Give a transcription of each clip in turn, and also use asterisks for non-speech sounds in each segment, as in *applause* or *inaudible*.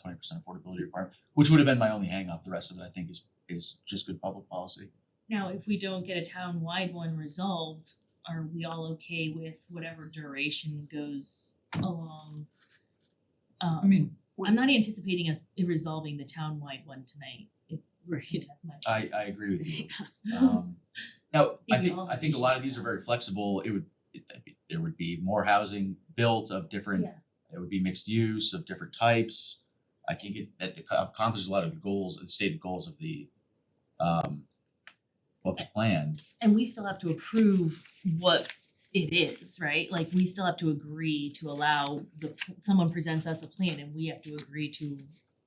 twenty percent affordability requirement, which would have been my only hang up. The rest of it I think is is just good public policy. Now, if we don't get a town-wide one resolved, are we all okay with whatever duration goes along? I Um, mean, I'm not anticipating us resolving the town-wide one tonight, if, *laughs* right, that's my. I I agree with *laughs* you. Um now, I These are think all I think a lot of these are very flexible. It would it there would be more housing built of different Yeah. it would be mixed use of different types. I think it that ac- accomplishes a lot of the goals, the stated goals of the um of the plan. And we still have to approve what it is, right? Like, we still have to agree to allow the, someone presents us a plan and we have to agree to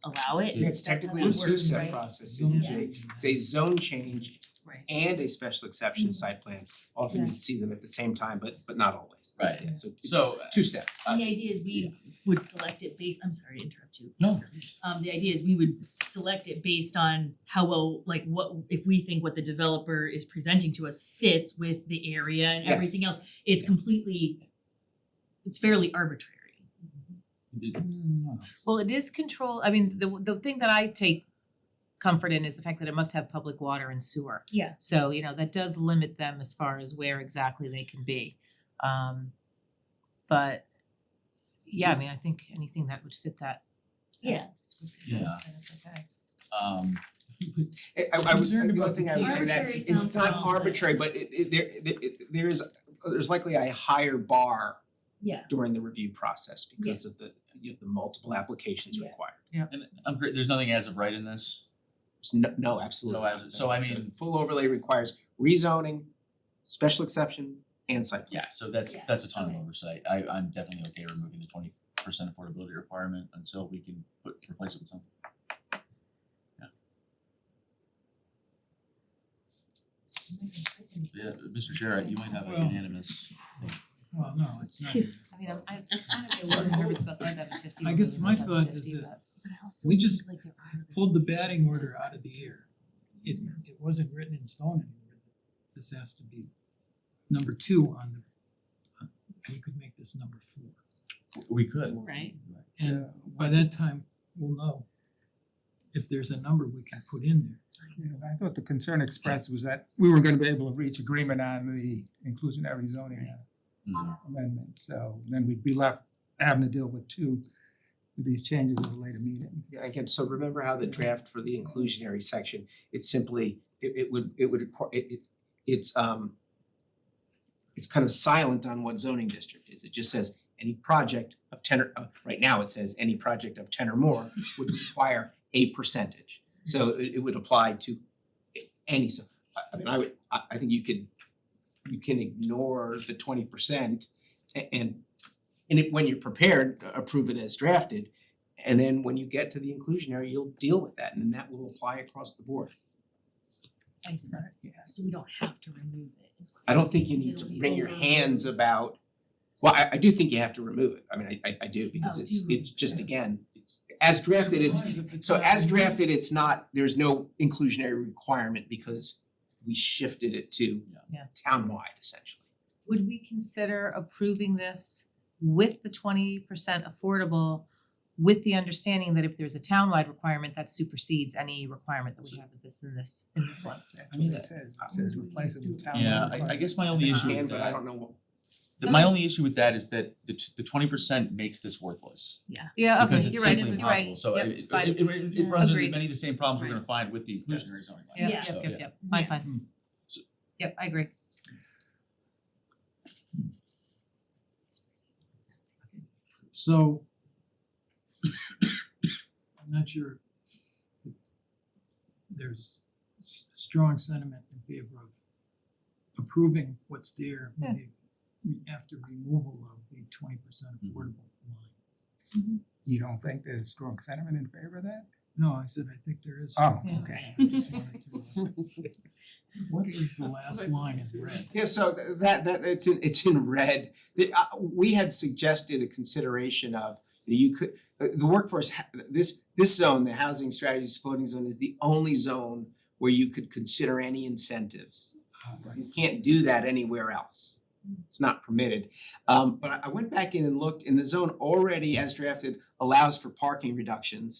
allow it. it's That's how technically that a works, two step right? process, it Yeah. is a, it's a zone change Right. and a special exception Mhm. site plan. Often Yeah. you'd see them at the same time, but but not always. Right. Yeah, so it's So two steps. The idea is we would select it based, I'm sorry to interrupt you. No. Um the idea is we would select it based on how well, like what, if we think what the developer is presenting to us fits with the area and Yes. everything else. It's Yes. completely, it's fairly arbitrary. uh, mm, Well, it is control, I mean, the the thing that I take comfort in is the fact that it must have public water and sewer. Yeah. So, you know, that does limit them as far as where exactly they can be. Um but yeah, I mean, I think anything that would fit that that Yeah. would be Yeah. good, then it's okay. Um I I I was, Concerned the about only thing I would say to that Arbitrary is it's sounds not wrong, but- arbitrary, but it it there there it- there is there's likely a higher bar Yeah. during the review process because Yes. of the you know, the multiple applications Yeah. required. and I'm great, there's nothing as of right in this. There's no no, absolutely. No, as- not. so I It's a mean- Full overlay requires rezoning, special exception and site plan. Yeah, so that's Yeah, that's a ton of okay. oversight. I I'm definitely okay removing the twenty percent affordability requirement until we can put replace it with something. Yeah, Mr. Chair, you might have a Well- unanimous. Well, no, it's not. I mean, I'm I'm kind *laughs* of a little nervous about the seven fifty. I guess my thought is that we just Pulled the batting order out of the air. It it wasn't written in stone anymore. This has to be number two on the, we could make this number four. We could. Right. And by that time, we'll know if there's a number we can put in there. Yeah, I thought the concern expressed was that we were gonna be able to reach agreement on the inclusionary zoning Mm-hmm. Mhm. amendment, so then we'd be left having to deal with two of these changes at a later meeting. Yeah, again, so remember how the draft for the inclusionary section, it's simply, it it would, it would require, it it it's um it's kind of silent on what zoning district is. It just says any project of ten or, uh, right now it says any project of ten or more would require a percentage. So it it would apply to a- any, so I I mean, I would, I I think you could, you can ignore the twenty percent and and it, when you're prepared, approve it as drafted, and then when you get to the inclusionary, you'll deal with that and then that will apply across the board. I see. So we don't have to remove it. is what I you're don't think you saying, need so to it'll be wring your over. hands about, well, I I do think you have to remove it. I mean, I I I do because Oh, it's do it's just again, it's as drafted, it's so as drafted, it's not, there's no inclusionary requirement because we shifted it to Yeah. townwide essentially. Would we consider approving this with the twenty percent affordable with the understanding that if there's a townwide requirement, that supersedes any requirement that we have with this in this in this one? I mean, it says, it says replace it with town. Yeah, I I guess my only Uh-huh. issue Can, with but I that, don't know what, the- my only issue with that is that the t- the twenty percent makes this worthless. Yeah, Oh, okay, Because it's you're right, simply you're impossible, right. so Yep, it it fine. it it- it runs into Agreed. many of the same problems we're Right. gonna find with the inclusionary zoning bylaw. Yeah. Yep, yep, So, yep, yeah. yep, fine, Hmm. fine. So- Yep, I agree. So I'm not sure if there's s- strong sentiment in favor of approving what's there with the re- after removal of the twenty percent Mhm. affordable line. You don't think there's strong sentiment in favor of that? No, I said I think there is. Oh, some okay. sentiment. *laughs* What is the last line in red? Yeah, so th- that that it's in it's in red. The uh we had suggested a consideration of you could uh, the workforce ha- this this zone, the housing strategies floating zone is the only zone where you could consider any incentives. Uh, You can't do that anywhere else. It's not permitted. Um but I- I went back in and looked and the zone already as drafted allows for parking reductions